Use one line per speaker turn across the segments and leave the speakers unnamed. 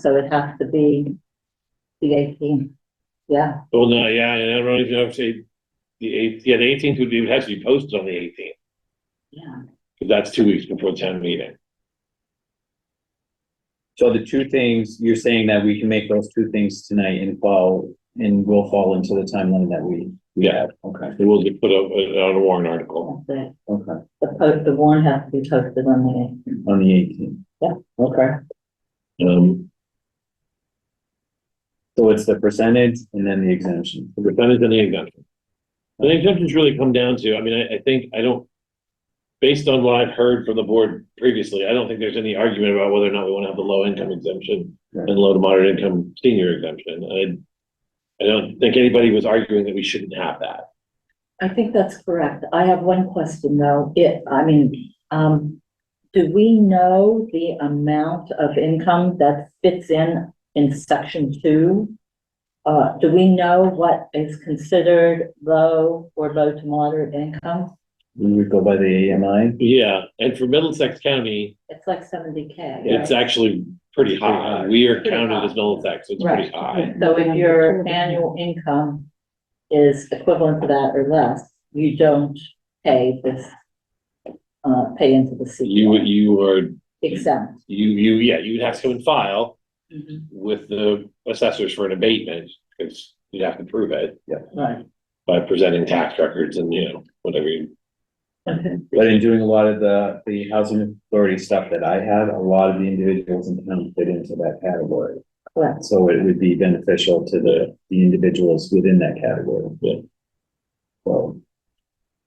so it has to be the eighteen, yeah,
Well, no, yeah, and everyone's gonna say, the eighth, yeah, the eighteenth would be, it has to be posted on the eighteenth,
yeah.
because that's two weeks before town meeting.
So the two things, you're saying that we can make those two things tonight and fall, and will fall into the timeline that we, we
Yeah.
have, okay,
It will be put up uh, on a warrant article.
That's it.
okay,
The post, the warrant has to be posted on the eighteenth.
on the eighteenth.
Yeah.
Okay,
Um,
so it's the percentage and then the exemption,
the percentage and the exemption. And The exemptions really come down to, I mean, I, I think, I don't, based on what I've heard from the board previously, I don't think there's any argument about whether or not we want to have the low income exemption
Right.
and low to moderate income senior exemption. And I don't think anybody was arguing that we shouldn't have that.
I think that's correct. I have one question though. It, I mean, um, do we know the amount of income that fits in in section two? Uh, do we know what is considered low or low to moderate income?
we would go by the AMI.
Yeah, and for Middlesex County,
It's like seventy K.
it's actually pretty high. We are counted as Middlesex, so it's pretty
Right.
high.
So if your annual income is equivalent to that or less, you don't pay this, uh, pay into the
You,
CPA
you are,
exempt.
you, you, yeah, you'd have to come and file.
Mhm.
with the assessors for an abatement, because you'd have to prove it
Right.
by presenting tax records and, you know, whatever. you-
Okay.
But in doing a lot of the, the housing authority stuff that I had, a lot of the individuals in town fit into that category.
Correct.
So it would be beneficial to the, the individuals within that category.
Yeah.
So,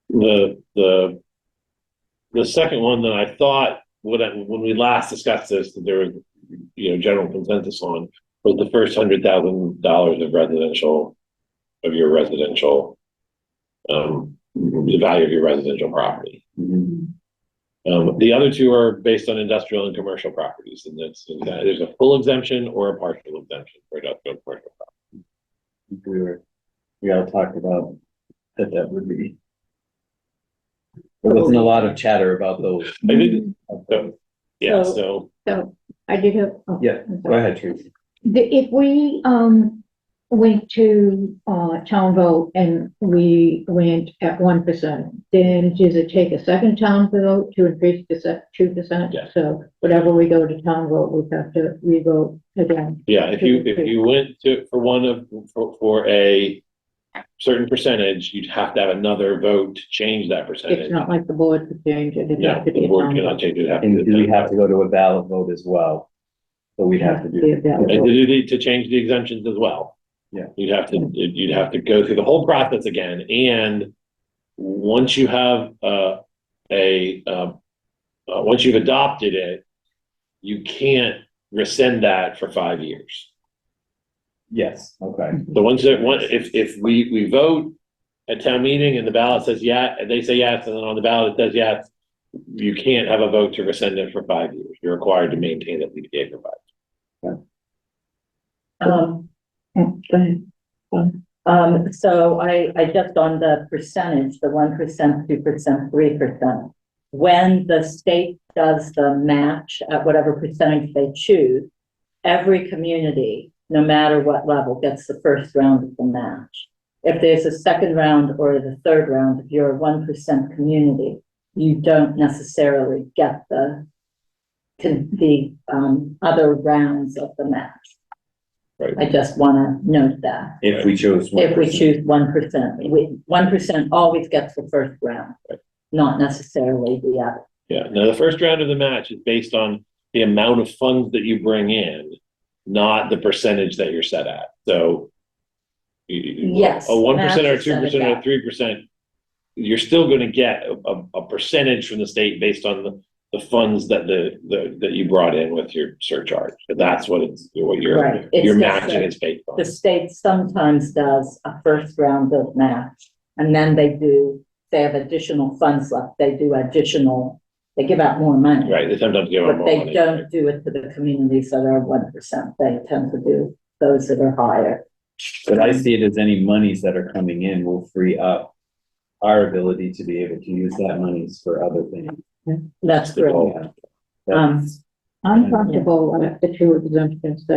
The, the, the second one that I thought, when, I- when we last discussed this, that there was, you know, general consensus on, was the first hundred thousand dollars of residential, of your residential, um, the value of your residential property.
mhm.
Um, the other two are based on industrial and commercial properties, and that's, there's a full exemption or a partial exemption for industrial and commercial.
we were, we all talked about that that would be. There wasn't a lot of chatter about those.
I did, so, yeah,
So-
so,
Mm-hmm. So I did have. oh,
Yeah, Go
I'm sorry.
ahead, Tracy.
The- If we, um, went to, uh, town vote and we went at one percent, then does it take a second town vote to increase to se- two percent?
Yes.
So whatever we go to town vote, we have to re-vote again.
yeah, if you, if you went to, for one of, for, for a certain percentage, you'd have to have another vote to change that
It's
percentage.
not like the board could change it. it'd
Yeah,
have to be
the
a
board
town
cannot
vote.
change it. it'd have to-
And do we have to go to a ballot vote as well? So we'd have to do.
Yeah,
And to, do- to change the exemptions as well.
Yeah.
You'd have to, you'd have to go through the whole process again, and once you have, uh, a, um, uh, once you've adopted it, you can't rescind that for five years.
Yes, okay.
So once that, one, if, if we, we vote at town meeting and the ballot says yeah, and they say yes, and then on the ballot it says yes, you can't have a vote to rescind it for five years. You're required to maintain that CPA for five.
Um,
Mm, Go ahead.
um, so I, I just on the percentage, the one percent, two percent, three percent. When the state does the match at whatever percentage they choose, every community, no matter what level, gets the first round of the match. If there's a second round or the third round, if you're a one percent community, you don't necessarily get the can the um other rounds of the match.
Right.
I just wanna note that.
If we chose. one
If we
person.
choose one percent, we, one percent always gets the first round, not necessarily the other.
Yeah, now the first round of the match is based on the amount of funds that you bring in, not the percentage that you're set at, so. you- you-
Yes,
A one percent or
match is
two
set at
percent or
that.
three percent, you're still gonna get a, a- a percentage from the state based on the, the funds that the, the, that you brought in with your surcharge. And That's what it's, what you're,
Right, it's
you're
just
matching
that-
is based on.
The state sometimes does a first round of match, and then they do, they have additional funds left, they do additional, they give out more money.
Right, they sometimes give
But
them more
they
money.
don't do it to the communities that are one percent, they tend to do those that are higher.
But I see it as any monies that are coming in will free up our ability to be able to use that monies for other things.
That's
That's the
great.
goal.
Yeah.
Um,
That's-
I'm comfortable with the two exemptions that